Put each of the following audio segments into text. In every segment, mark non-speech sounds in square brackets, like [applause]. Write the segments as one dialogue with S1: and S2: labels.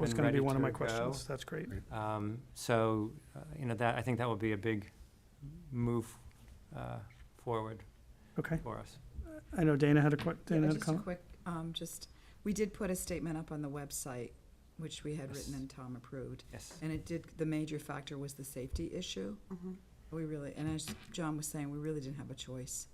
S1: That's
S2: and
S1: gonna
S2: ready
S1: be one of my
S2: to go.
S1: questions, that's great.
S2: Um, So, uh, you know, that, I think that will be a big move uh, forward
S1: Okay,
S2: for us.
S1: I know Dana had a que,
S3: Yeah,
S1: Dana had a
S3: Just a
S1: comment?
S3: quick, um, just, we did put a statement up on the website, which we had written
S2: Yes.
S3: and Tom approved.
S2: Yes.
S3: And it did, the major factor was the safety issue. We really, and as John was saying, we really didn't have a choice.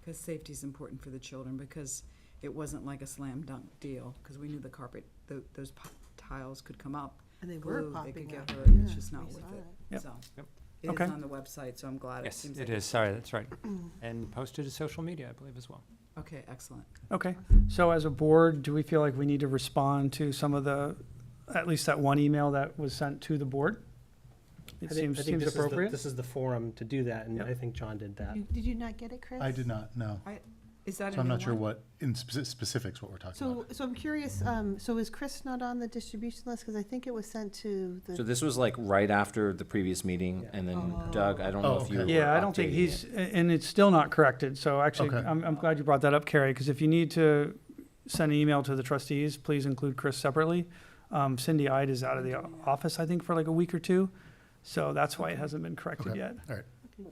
S3: Because safety's important for the children, because it wasn't like a slam dunk deal, because we knew the carpet, tho- those po- tiles could come up.
S4: And they
S3: glue,
S4: were
S3: They could
S4: popping
S3: get
S4: up.
S3: hurt, and it's
S4: Yeah,
S3: just not
S4: we
S3: worth
S4: saw
S3: it,
S1: Yep.
S3: so.
S2: Yep.
S3: It is
S1: Okay.
S3: on the website, so I'm glad it
S2: Yes,
S3: seems like.
S2: it is, sorry,
S1: [clears throat]
S2: that's right. And posted to social media, I believe, as well.
S3: Okay, excellent.
S1: Okay, so as a board, do we feel like we need to respond to some of the, at least that one email that was sent to the board? It
S5: I think- I
S1: seems,
S5: think
S1: seems
S5: this is the-
S1: appropriate?
S5: This is the forum to do that, and
S1: Yep.
S5: I think John did that.
S4: You- Did you not get it, Chris?
S6: I did not, know,
S3: Is that?
S6: So I'm
S3: in the
S6: not sure
S3: warrant?
S6: what, in speci- specifics, what we're talking
S4: So,
S6: about.
S4: so I'm curious,
S6: Mm-hmm.
S4: um, so is Chris not on the distribution list? Because I think it was sent to
S7: So
S4: the,
S7: this was like right after the previous meeting, and then
S4: Oh.
S7: Doug, I don't know
S6: Oh,
S7: if you were
S6: okay.
S1: Yeah, I don't think
S7: updating
S1: he's,
S7: it.
S1: a- and it's still not corrected, so actually,
S6: Okay.
S1: I'm, I'm glad you brought that up, Carrie, because if you need to send an email to the trustees, please include Chris separately. Um, Cindy Ide is out of the o- office, I think, for like a week or two, so that's why it hasn't been corrected
S6: Okay.
S1: yet.
S6: All right,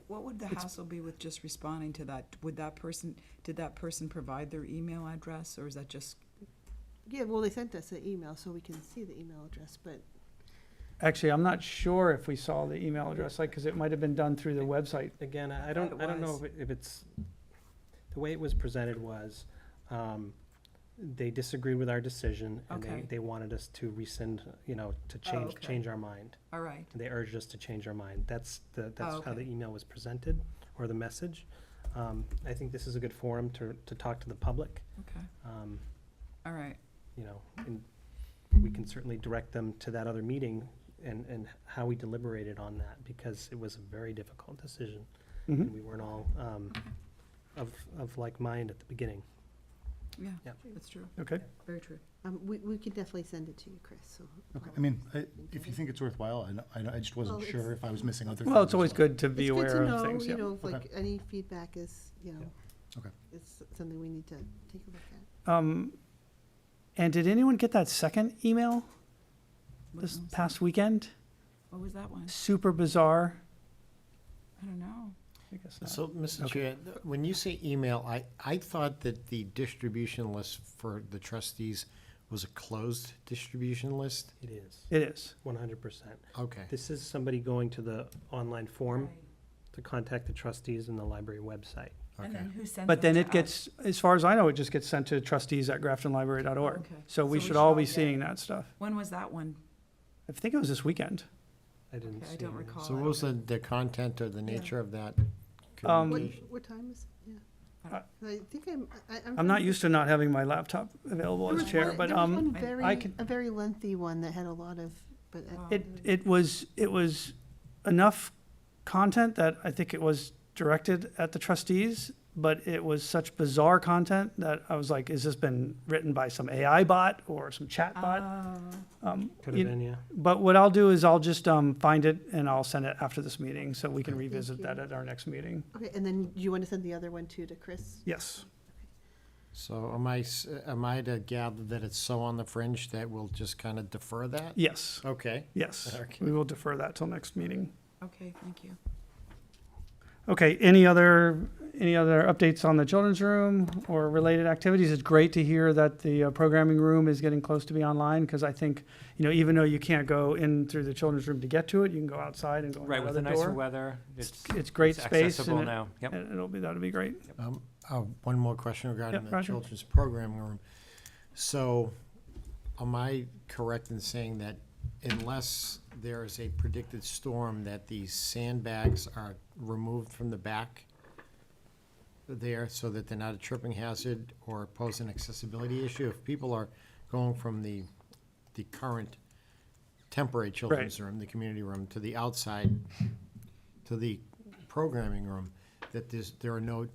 S3: What would the hassle be with just responding to that? Would that person, did that person provide their email address, or is that just?
S4: yeah, well, they sent us an email, so we can see the email address, but
S1: Actually, I'm not sure if we saw the email address, like, because it might have been done through the website.
S5: Again, I I don't,
S3: Mm-hmm. Thought it
S5: I don't know
S3: was.
S5: if it- if it's, the way it was presented was, um, they disagreed with our decision, and they,
S3: Okay. Oh,
S5: they wanted us to rescind, you know, to change,
S3: okay.
S5: change our mind.
S3: All right,
S5: They urged us to change our mind. That's the, that's how
S3: Oh, okay.
S5: the email was presented, or the message. Um, I think this is a good forum to, to talk to the public.
S3: okay,
S5: Um,
S3: all right.
S5: you know, and we can certainly direct them to that other meeting and, and how we deliberated on that, because it was a very difficult decision.
S1: Mhm.
S5: And we weren't all, um, of, of like mind at the beginning.
S3: Yeah,
S5: Yep.
S3: that's true.
S1: Okay.
S3: Very true.
S4: um, we, we could definitely send it to you, Chris, so.
S6: okay, I mean, I- if you think it's worthwhile, I know- I, know- I just wasn't
S4: Well,
S6: sure
S4: it's-
S6: if I was missing other things.
S1: Well, it's
S6: or
S1: always
S6: something.
S1: good to be
S4: It's good
S1: aware
S4: to
S1: of
S4: know,
S1: things,
S4: You
S1: yeah.
S4: know, if,
S6: Okay.
S4: like, any feedback is, you know,
S6: Okay.
S4: it's something we need to take a look at.
S1: Um, and did anyone get that second email
S3: What
S1: this
S3: was-
S1: past weekend?
S3: What was that one?
S1: Super bizarre.
S3: I don't know.
S1: I guess not.
S8: So, Mr.
S1: Okay.
S8: Chair, th- when you say email, I, I thought that the distribution list for the trustees was a closed distribution list?
S5: It is,
S1: It is.
S5: one hundred percent.
S8: Okay,
S5: This is somebody going to the online form to contact the trustees and the library website.
S3: And
S8: okay.
S3: then who sent
S1: But then
S3: them
S1: it
S3: to
S1: gets,
S3: us?
S1: as far as I know, it just gets sent to trustees at graftonlibrary.org.
S3: Okay.
S1: So we should
S3: all
S1: all be
S3: get it.
S1: seeing that stuff.
S3: When was that one?
S1: I think it was this weekend.
S5: I didn't
S3: Okay,
S5: see.
S3: I don't
S5: it.
S3: recall.
S8: So
S3: I
S8: what
S3: don't
S8: was
S3: know.
S8: the, the content or the
S4: Yeah.
S8: nature of that
S1: Um,
S4: What,
S8: communication?
S4: what time is, it? yeah.
S3: I don't-
S4: 'Cause I think I'm, I, Uh, I'm.
S1: I'm not used to not having my laptop available as chair, but, um,
S3: I-
S4: There was
S1: I
S4: one very,
S1: can-
S4: a very lengthy one that had a lot of, but. uh, I-
S3: Wow.
S1: It, it was, it was enough content that I think it was directed at the trustees, but it was such bizarre content that I was like, has this been written by some AI bot or some chat bot?
S3: Oh,
S1: Um,
S5: Could
S1: you-
S5: have been, yeah.
S1: But what I'll do is I'll just, um, find it and I'll send it after this meeting, so we can revisit
S4: you.
S1: that at our next meeting.
S4: Okay, and then you want to send the other one too to Chris?
S1: Yes.
S8: So am I, s- am I to gather that it's so on the fringe that we'll just kind of defer that?
S1: Yes,
S8: Okay.
S1: yes.
S8: Okay.
S1: We will defer that till next meeting.
S3: Okay, thank you.
S1: Okay, any other, any other updates on the children's room or related activities? It's great to hear that the uh, programming room is getting close to be online, because I think, you know, even though you can't go in through the children's room to get to it, you can go outside and go in
S2: Right, with
S1: the
S2: the nicer
S1: door.
S2: weather,
S1: It's-
S2: it's
S1: It's great
S2: it's
S1: space,
S2: accessible
S1: and it-
S2: now. Yep.
S1: and it'll be, that'll be great.
S8: Um, uh, one more question regarding
S1: Yeah,
S8: the
S1: Roger.
S8: children's programming room. So, am I correct in saying that unless there is a predicted storm, that these sandbags are removed from the back there so that they're not a tripping hazard or pose an accessibility issue? If people are going from the, the current temporary children's room, the community room, to the outside, to the programming room, that there's, there are no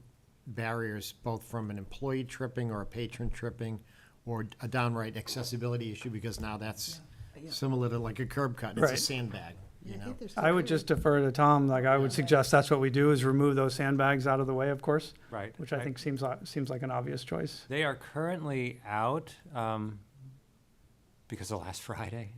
S8: barriers, both from an employee tripping or a patron tripping, or a downright accessibility issue, because now that's
S3: Yeah.
S8: similar to like a curb cut, it's a
S1: Right.
S8: sandbag, you
S4: I
S8: know?
S4: think there's
S1: I would
S4: something
S1: just defer to Tom, like, I would suggest that's what we do, is remove those sandbags out of the way, of course,
S2: Right.
S1: which I
S2: right.
S1: think seems, li- seems like an obvious choice.
S2: They are currently out um, because of last [laughs] Friday.